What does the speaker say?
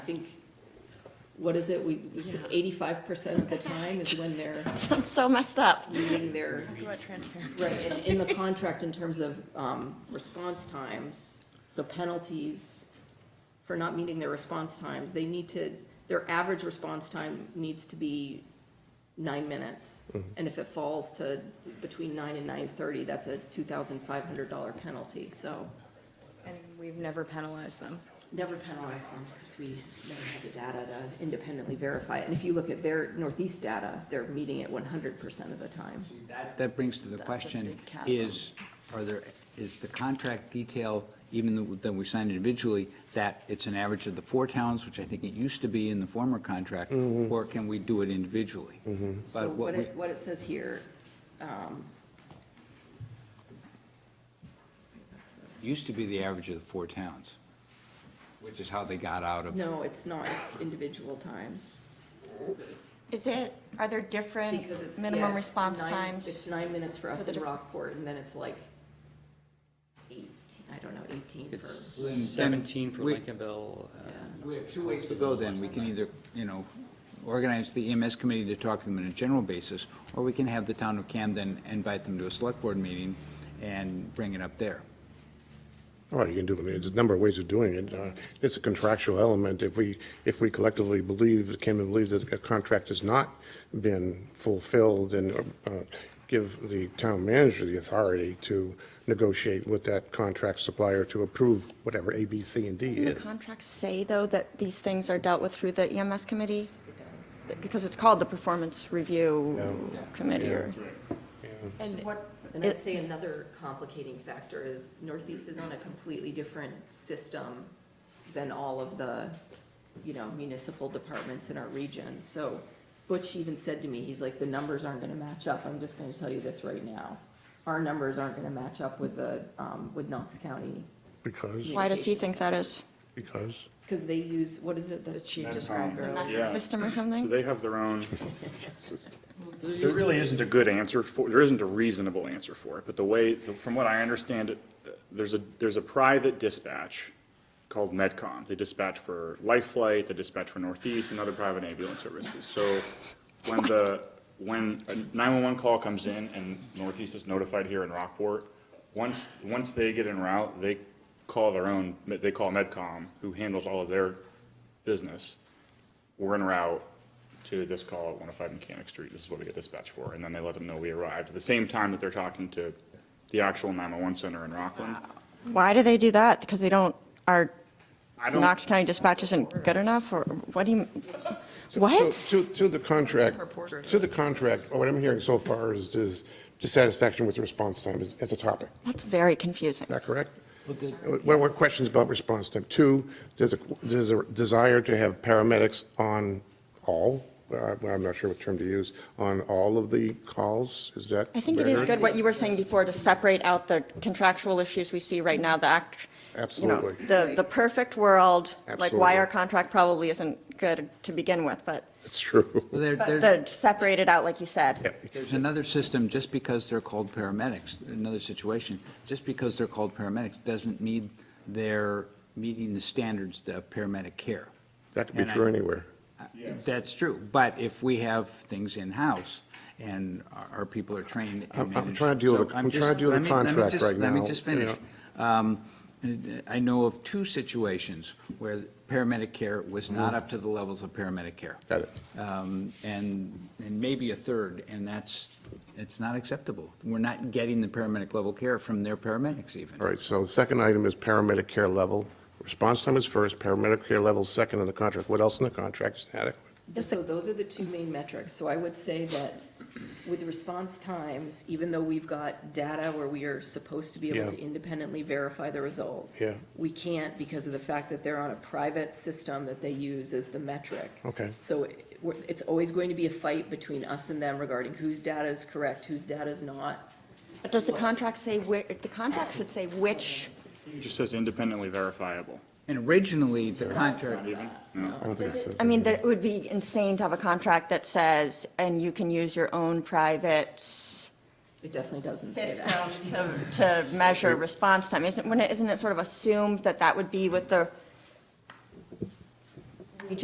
I think, what is it, we, we said eighty-five percent of the time is when they're Sounds so messed up. meeting their, about transparency. right, and in the contract in terms of, um, response times, so penalties for not meeting their response times, they need to, their average response time needs to be nine minutes. And if it falls to between nine and nine-thirty, that's a two thousand five hundred dollar penalty, so And we've never penalized them. never penalize them because we never have the data to independently verify it. And if you look at their Northeast data, they're meeting it one hundred percent of the time. That- That brings to the That's a question, big chasm. is, are there, is the contract detail, even though that we signed individually, that it's an average of the four towns, which I think it used to be in the former contract, or can we do it individually? So But what what we, it, what it says here, um, that's the- used to be the average of the four towns, which is how they got out of. no, it's not, it's individual times. Is it, are there different Because it's. yeah, minimum it's response nine- times? It's nine minutes for us For the in diff- Rockport and then it's like eighteen, I don't know, eighteen for. It's Then- then seventeen for we- Lincolnville. uh, Yeah. We have two ways to Hopefully go it's then. less We than can that. either, you know, organize the EMS committee to talk to them on a general basis, or we can have the town of Camden invite them to a select board meeting and bring it up there. All right, you can do it. There's a number of ways of doing it. Uh, It's a contractual element. If we, if we collectively believe, came and believe that a contract has not been fulfilled, then uh, give the town manager the authority to negotiate with that contract supplier to approve whatever A, B, C, and D Doesn't the is. contracts say, though, that these things are dealt with through the EMS committee? It does. Because it's called the Performance Review Committee or. And what, and I'd say another complicating factor is Northeast is on a completely different system than all of the, you know, municipal departments in our region. So Butch even said to me, he's like, the numbers aren't gonna match up, I'm just gonna tell you this right now. Our numbers aren't gonna match up with the, um, with Knox County, Because, Why does he think that is? because, because they use, what is it, the chief described earlier? Metric system or Uh, So something? they have their own. There really isn't a good answer for, there isn't a reasonable answer for it, but the way, from what I understand it, there's a, there's a private dispatch called Medcom. They dispatch for Life Flight, they dispatch for Northeast and other private ambulance services. So when the, when a nine-one-one call comes in and Northeast is notified here in Rockport, once, once they get en route, they call their own, they call Medcom, who handles all of their business we're en route to this call at 105 Mechanic Street, this is what we get dispatched for, and then they let them know we arrived, at the same time that they're talking to the actual 911 center in Rockland. Why do they do that? Because they don't, our I don't, Knox County dispatch isn't good enough or what do you, what? To, to the contract, to the contract, what I'm hearing so far is, is dissatisfaction with response time is, as a topic. That's very confusing. Is that correct? Uh, What what questions about response time? Two, there's a, there's a desire to have paramedics on all, uh, I'm not sure what term to use, on all of the calls, is that? I think it is fair? good what you were saying before to separate out the contractual issues we see right now, the act. you know, Absolutely. The, the perfect world, like why Absolutely. our contract probably isn't good to begin with, but, It's true. Well, there- but there- the separate it out, like you said. Yeah. There's another system, just because they're called paramedics, another situation, just because they're called paramedics doesn't mean they're meeting the standards of paramedic care. That could be And I- true anywhere. That's true, but if we have things in-house and our our people are trained and I'm- I'm managed- trying to deal with- So I'm just- trying to deal with let me- let me contract just- right Let me now, just you know. finish. Um, I know of two situations where paramedic care was Mm-hmm. not up to the levels of paramedic care. Got it. Um, And, and maybe a third, and that's, it's not acceptable. We're not getting the paramedic level care from their paramedics even. All right, so the second item is paramedic care level. Response time is first, paramedic care level is second in the contract. What else in the contract is adequate? So those are the two main metrics, so I would say that with response times, even though we've got data where we are supposed to be able Yeah. to independently verify the result. Yeah. We can't because of the fact that they're on a private system that they use as the metric. Okay. So it- we're- it's always going to be a fight between us and them regarding whose data is correct, whose data is not. But does the contract say where, the contract should say which, it just says independently verifiable. And originally, the contract, I don't think it says I mean, there- it would be insane to have a contract that says, and you can use your own private It definitely doesn't say that. system to, to measure response time. Isn't, wouldn't it- isn't it sort of assumed that that would be with the